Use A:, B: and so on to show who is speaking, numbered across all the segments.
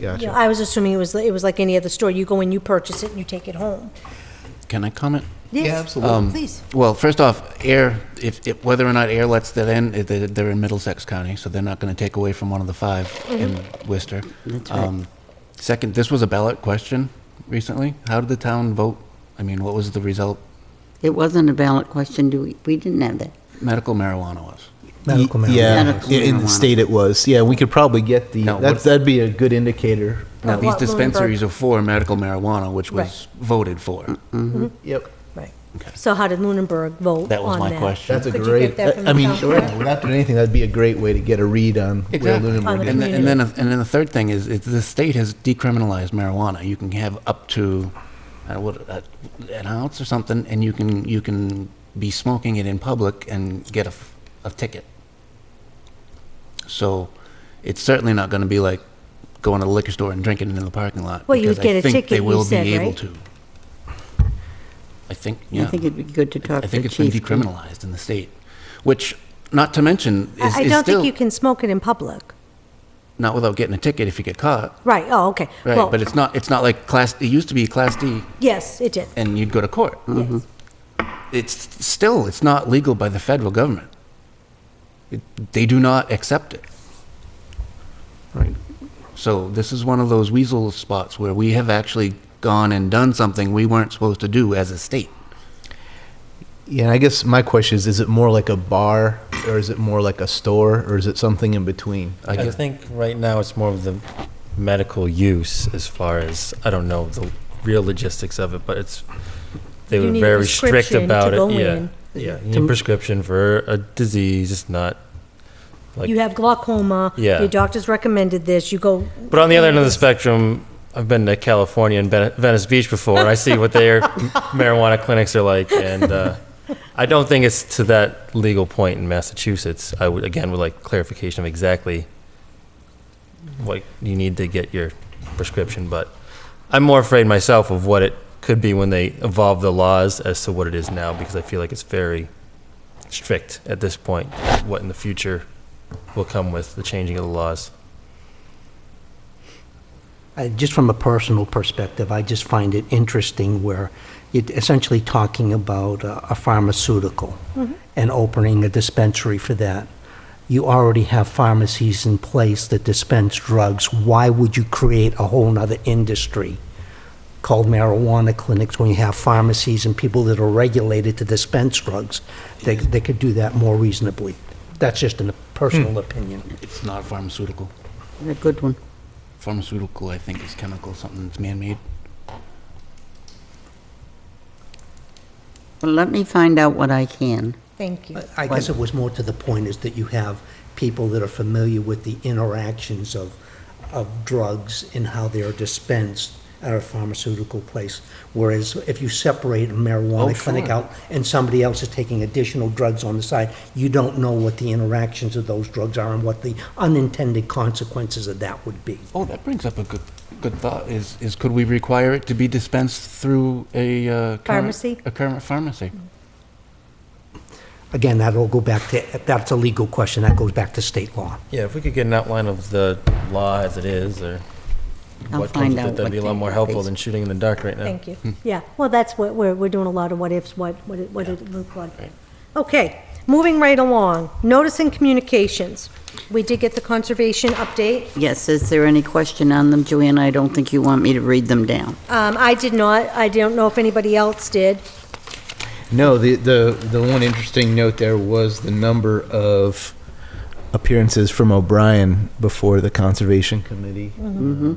A: Yeah,
B: Gotcha.
A: I was assuming it was, it was like any other store. You go in, you purchase it, and you take it home.
C: Can I comment?
B: Yeah, absolutely.
D: Please.
C: Well, first off, air, if, if, whether or not air lets that in, eh, they- they're in Middlesex County, so they're not going to take away from one of the five
A: Mm-hmm.
C: in Worcester.
D: That's right.
C: Um, Second, this was a ballot question recently. How did the town vote? I mean, what was the result?
D: It wasn't a ballot question, do we, we didn't have that.
C: Medical marijuana was.
E: Medical
B: Y-
E: marijuana.
B: Yeah,
D: Medical
B: in in the
D: marijuana.
B: state it was. Yeah, we could probably get the,
C: No,
B: that's,
C: what-
B: that'd be a good indicator.
C: Now,
A: Of
C: these
A: what, Lunenburg?
C: dispensaries are for medical marijuana, which
A: Right.
C: was voted for.
B: Yep.
A: Right. So how did Lunenburg vote on that?
C: That was my question.
B: That's a
A: Could you
B: great,
A: get that from
B: I
A: the
B: mean,
A: town
B: sure,
A: clerk?
B: without doing anything, that'd be a great way to get a read on where
C: Exactly.
A: On
B: Lunenburg
A: the
B: is.
C: And, the- and then, and then the third thing is, is the state has decriminalized marijuana. You can have up to, uh, what, uh, an ounce or something, and you can, you can be smoking it in public and get a, f- a ticket. So it's certainly not going to be like going to the liquor store and drinking it in the parking lot.
A: Well, you'd
C: because I
A: get a
C: think
A: ticket,
C: they
A: you
C: will be
A: said,
C: able
A: right?
C: to. I think,
D: I
C: yeah.
D: think it'd be good to talk
C: I
D: to the
C: think
D: chief.
C: it's been decriminalized in the state, which, not to mention, is is
A: I
C: still.
A: I don't think you can smoke it in public.
C: Not without getting a ticket if you get caught.
A: Right, oh, okay.
C: Right,
A: Well,
C: but it's not. It's not like class. It used to be class D,
A: Yes, it did.
C: and you'd go to court.
A: Yes.
C: It's still. It's not legal by the federal government. It, they do not accept it.
B: Right.
C: So this is one of those weasel spots where we have actually gone and done something we weren't supposed to do as a state.
B: Yeah, and I guess my question is, is it more like a bar or is it more like a store or is it something in between?
C: I
F: I
C: guess
F: think right now it's more of the medical use as far as, I don't know the real logistics of it, but it's, they
A: You
F: were
A: need a
F: very strict
A: prescription to
F: about it.
A: go
F: Yeah,
A: in.
F: yeah. You need a prescription for a disease, it's not, Like-
A: You have glaucoma.
F: Yeah.
A: Your doctor's recommended this, you go.
F: but on the other end of the spectrum, I've been to California and Ven- Venice Beach before, and I see what their marijuana clinics are like, and, uh, I don't think it's to that legal point in Massachusetts. I would, again, would like clarification of exactly what you need to get your prescription, but I'm more afraid myself of what it could be when they evolve the laws as to what it is now, because I feel like it's very strict at this point, what in the future will come with the changing of the laws.
G: I- Just from a personal perspective, I just find it interesting where it essentially talking about a a pharmaceutical and opening a dispensary for that. You already have pharmacies in place that dispense drugs. Why would you create a whole nother industry called marijuana clinics when you have pharmacies and people that are regulated to dispense drugs? They, they could do that more reasonably. That's just a personal opinion.
C: it's not pharmaceutical.
D: A good one.
C: Pharmaceutical, I think, is chemical, something that's man-made.
D: Well, let me find out what I can.
A: Thank you.
G: I guess it was more to the point is that you have people that are familiar with the interactions of, of drugs and how they are dispensed at a pharmaceutical place. Whereas if you separate a
C: Oh,
G: marijuana clinic
C: sure.
G: out and somebody else is taking additional drugs on the side, you don't know what the interactions of those drugs are and what the unintended consequences of that would be.
C: Oh, that brings up a good, good thought, is, is could we require it to be dispensed through a, uh, current-
A: Pharmacy?
C: A current pharmacy.
G: Again, that'll go back to, that's a legal question, that goes back to state law.
F: Yeah, if we could get an outline of the law as it is, or
D: I'll
F: what
D: find
F: comes with
D: out
F: it, that'd be a
D: what
F: lot
D: the-
F: more helpful than shooting in the dark right now.
A: Thank you. Yeah, well, that's what, we're, we're doing a lot of what ifs, what, what it, what it looked like. Okay, moving right along, notice and communications. We did get the conservation update.
D: Yes, is there any question on them, Joanne? I don't think you want me to read them down.
A: Um, I did not, I don't know if anybody else did.
B: No, the, the, the one interesting note there was the number of appearances from O'Brien before the Conservation Committee.
D: Mm-hmm.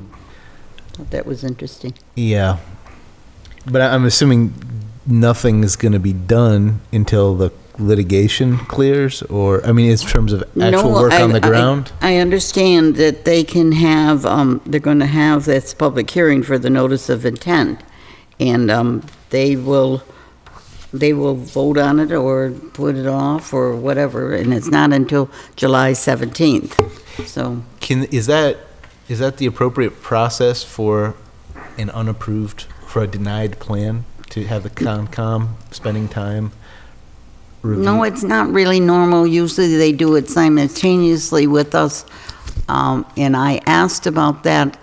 D: That was interesting.
B: Yeah. But I- I'm assuming nothing is going to be done until the litigation clears, or, I mean, in terms of actual
D: No,
B: work
D: I-
B: on the
D: I-
B: ground?
D: I understand that they can have, um, they're going to have this public hearing for the notice of intent, and um, they will, they will vote on it or put it off or whatever, and it's not until July 17th, so.
B: Can, is that, is that the appropriate process for an unapproved, for a denied plan, to have the Concom spending time?
D: No, it's not really normal. Usually they do it simultaneously with us. Um, And I asked about that